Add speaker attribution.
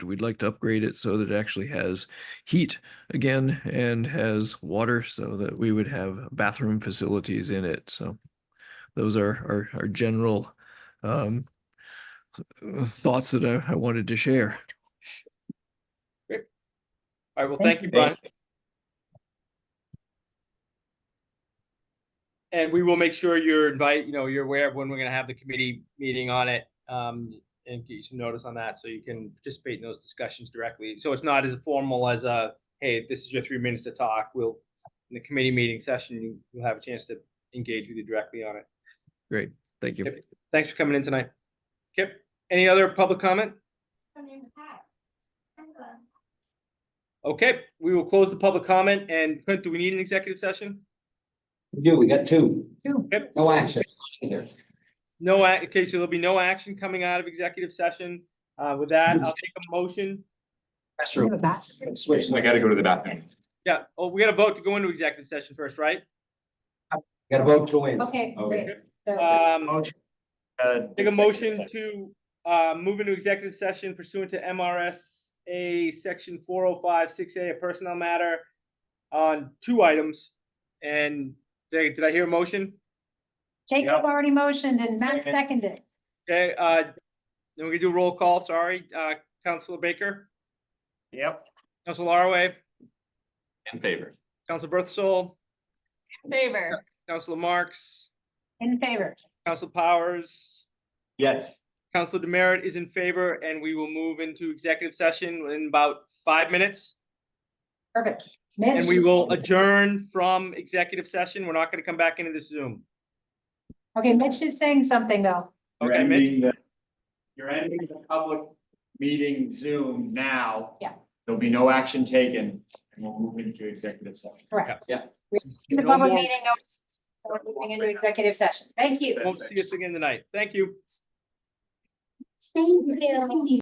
Speaker 1: we'd like to upgrade it so that it actually has heat again and has water so that we would have bathroom facilities in it. So those are our, our general um, thoughts that I, I wanted to share.
Speaker 2: All right, well,
Speaker 3: Thank
Speaker 2: thank you,
Speaker 3: you.
Speaker 2: Brian. And we will make sure you're invite, you know, you're aware of when we're gonna have the committee meeting on it, um, and get you some notice on that, so you can participate in those discussions directly. So it's not as formal as a, hey, this is your three minutes to talk, we'll, in the committee meeting session, you, you'll have a chance to engage with you directly on it.
Speaker 1: Great. Thank you.
Speaker 2: Yep. Thanks for coming in tonight. Kip, any other public comment?
Speaker 4: Her name is Pat.
Speaker 2: Okay, we will close the public comment, and Clint, do we need an executive session?
Speaker 3: We do, we got two.
Speaker 2: Yep.
Speaker 3: No action either.
Speaker 2: No, ac- okay, so there'll be no action coming out of executive session. Uh, with that, I'll take a motion.
Speaker 3: Restroom. Switch.
Speaker 5: I gotta go to the bathroom.
Speaker 2: Yeah, oh, we gotta vote to go into executive session first, right?
Speaker 3: Gotta vote to win.
Speaker 4: Okay,
Speaker 5: Okay.
Speaker 4: great. So,
Speaker 2: Um,
Speaker 5: Uh,
Speaker 2: take a motion
Speaker 5: Executive
Speaker 2: to, uh, move into executive session pursuant to MRSA section four oh five, six A, a personnel matter on two items. And did did I hear a motion?
Speaker 4: Jacob already motioned and Matt
Speaker 5: Second.
Speaker 4: seconded.
Speaker 2: Okay, uh, then we can do a roll call, sorry. Uh, Counselor Baker,
Speaker 5: Yep.
Speaker 2: Counselor Laraway,
Speaker 5: In favor.
Speaker 2: Counselor Berthasol,
Speaker 4: Favor.
Speaker 2: Counselor Marks,
Speaker 4: In favor.
Speaker 2: Counselor Powers,
Speaker 5: Yes.
Speaker 2: Counselor Demerit is in favor, and we will move into executive session in about five minutes.
Speaker 4: Perfect.
Speaker 2: And we will adjourn from executive session. We're not gonna come back into this Zoom.
Speaker 4: Okay, Mitch is saying something though.
Speaker 2: Okay, Mitch?
Speaker 6: You're ending the public meeting Zoom now.
Speaker 4: Yeah.
Speaker 6: There'll be no action taken and we'll move into executive session.
Speaker 4: Correct.
Speaker 3: Yeah.
Speaker 4: The
Speaker 2: No
Speaker 4: public
Speaker 2: more-
Speaker 4: meeting notice. We're moving into executive session. Thank you.
Speaker 2: Won't see us again tonight. Thank you.
Speaker 4: Thank you.